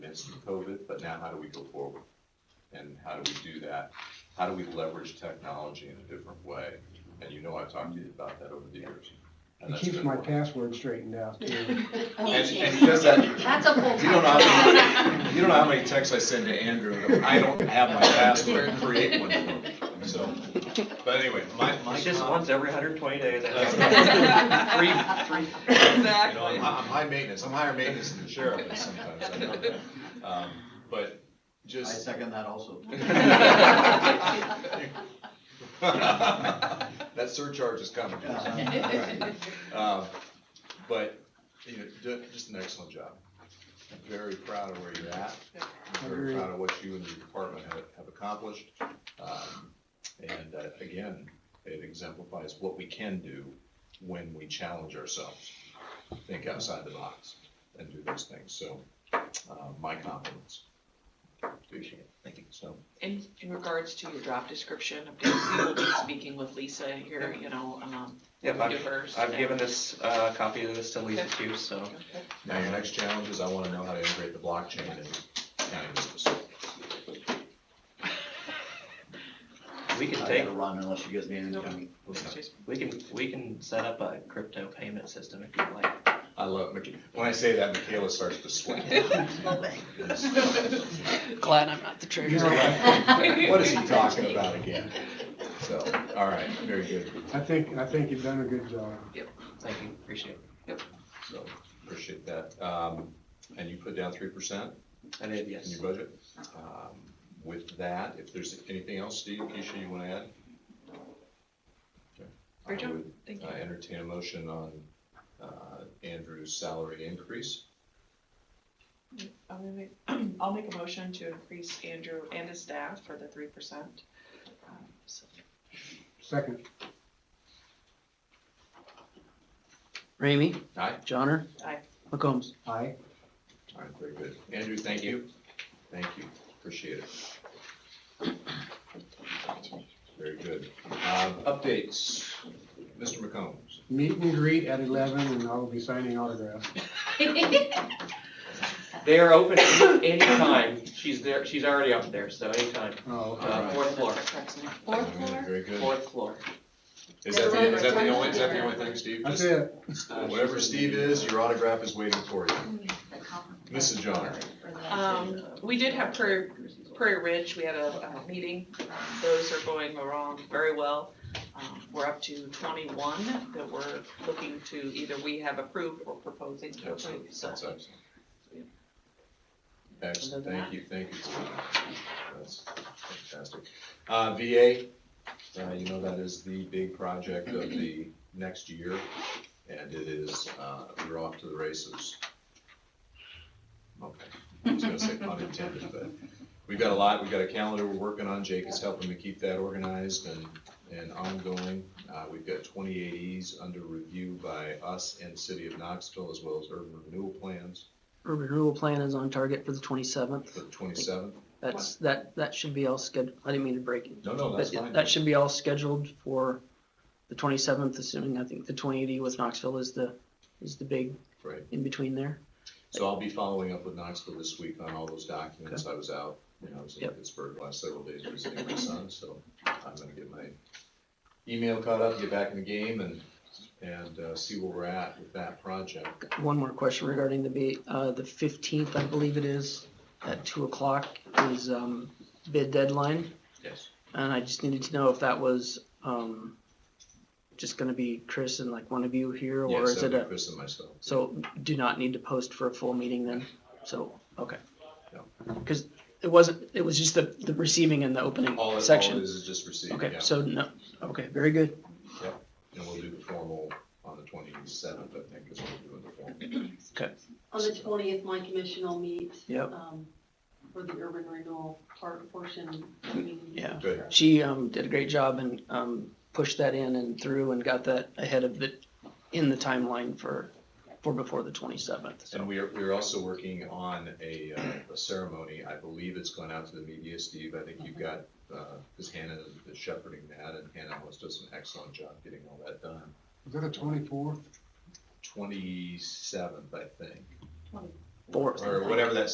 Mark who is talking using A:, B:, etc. A: managed through COVID, but now how do we go forward? And how do we do that? How do we leverage technology in a different way? And you know I've talked to you about that over the years. And
B: It
A: that's
B: keeps
A: been
B: my
A: working.
B: password straightened out too.
A: And, and he does that,
C: That's a full-time
A: you don't know how
C: job.
A: many, you don't know how many texts I send to Andrew, that I don't have my password, create one for me, so. But anyway, my, my.
D: It's just
A: comment-
D: once every hundred twenty days.
A: That's
D: Free, free.
A: You know,
E: Exactly.
A: I'm, I'm high maintenance, I'm higher maintenance than the sheriff is sometimes, I know that. Um, but
F: I
A: just.
F: second that also.
A: That surcharge is coming. Uh, But, you know, do, just an excellent job. I'm Very proud of where you're at. I'm Very
B: Agreed.
A: proud of what you and your department have, have accomplished. Um, And uh, again, it exemplifies what we can do when we challenge ourselves, think outside the box and do those things. So, uh, my compliments. Appreciate it. Thank you. So,
E: In, in regards to your job description, of course, we will be speaking with Lisa here, you know, um,
D: Yep,
E: we do
D: I've,
E: hers.
D: I've given this, uh, copy of this to Lisa too, so.
A: now your next challenge is I wanna know how to integrate the blockchain in county business.
D: We
F: I
D: can take,
F: gotta run unless you guys need any.
E: Nope.
D: we can, we can set up a crypto payment system if you'd like.
A: I love, Micha- when I say that, Michaela starts to sweat.
E: Glad I'm not the
B: You're
A: Right. What is he talking about again? So, all right, very good.
B: I think, I think you've done a good job.
D: Thank you, appreciate it.
A: So appreciate that. Um, and you put down three percent
D: I did,
A: in
D: yes.
A: your budget. Um, With that, if there's anything else, Steve, Keisha, you wanna add? Okay.
E: Great job.
A: I would,
E: Thank
A: uh,
E: you.
A: entertain a motion on, uh, Andrew's salary increase.
E: I'm gonna make, I'll make a motion to increase Andrew and his staff for the three percent. Uh,
B: Second,
G: Ramey,
A: Aye?
G: Johnner.
E: Aye.
G: McCombs.
B: aye.
A: All right, very good. Andrew, thank you. Thank you, appreciate it. Very good. Um, updates, Mr. McCombs.
B: Meet and greet at eleven and I will be signing autographs.
D: They are open any- anytime. She's there, she's already up there, so anytime.
B: Oh, okay.
D: Uh, fourth floor,
C: Fourth floor?
A: Very good.
D: fourth floor.
A: Is that the, is that the only, is that the only thing, Steve?
B: That's it.
A: Just Whatever Steve is, your autograph is waiting for you. Mrs. Johnner.
E: Um, we did have Prairie, Prairie Ridge, we had a, uh meeting, those are going along very well. Um, We're up to twenty-one that we're looking to, either we have approved or proposing to
A: That's
E: approve,
A: it.
E: so.
A: That's excellent. Excellent, thank you, thank you. Steve. That's fantastic. Uh, VA, uh, you know, that is the big project of the next year, and it is, uh, we're off to the races. Okay, I was gonna say pun intended, but we've got a lot, we've got a calendar we're working on, Jake is helping me keep that organized and, and ongoing. Uh, we've got twenty-eight E's under review by us and City of Knoxville, as well as urban renewal plans
G: Urban renewal plan is on target for the twenty-seventh.
A: for the twenty-seventh.
G: That's, that, that should be all scheduled. I didn't mean to break it.
A: No, no, that's
G: That-
A: fine.
G: That should be all scheduled for the twenty-seventh, assuming, I think the twenty-eighty with Knoxville is the, is the big
A: Right.
G: in between there.
A: So I'll be following up with Knoxville this week on all those documents. I was out, you know, I was in
G: Yep.
A: Pittsburgh last several days visiting my son, so I'm gonna get my email caught up, get back in the game and, and, uh, see where we're at with that project.
G: One more question regarding the, B- uh, the fifteenth, I believe it is, at two o'clock is, um, bid deadline.
A: Yes.
G: And I just needed to know if that was, um, just gonna be Chris and like one of you here, or
A: Yes,
G: is
A: that'd
G: it
A: be
G: a?
A: Chris and myself.
G: So do not need to post for a full meeting then? So, okay.
A: Yeah.
G: Because it wasn't, it was just the, the receiving and the opening
A: All it, all it
G: section.
A: is is just received,
G: Okay,
A: yeah.
G: so no, okay, very good.
A: And we'll do the formal on the twenty-seventh, I think, is when we're doing the formal.
H: On the twentieth, my commission will meet.
G: Yep.
H: um, For the urban renewal part portion. I mean,
G: Yeah.
A: Good.
G: She, um, did a great job and, um, pushed that in and through and got that ahead of it in the timeline for, for before the twenty-seventh.
A: And we are, we are also working on a, uh, a ceremony. I believe it's gone out to the media, Steve. I think you've got, uh, because Hannah is shepherding that and Hannah always does an excellent job getting all that done.
B: Is that a twenty-fourth?
A: Twenty-seventh, I think,
G: Fourth.
A: or whatever that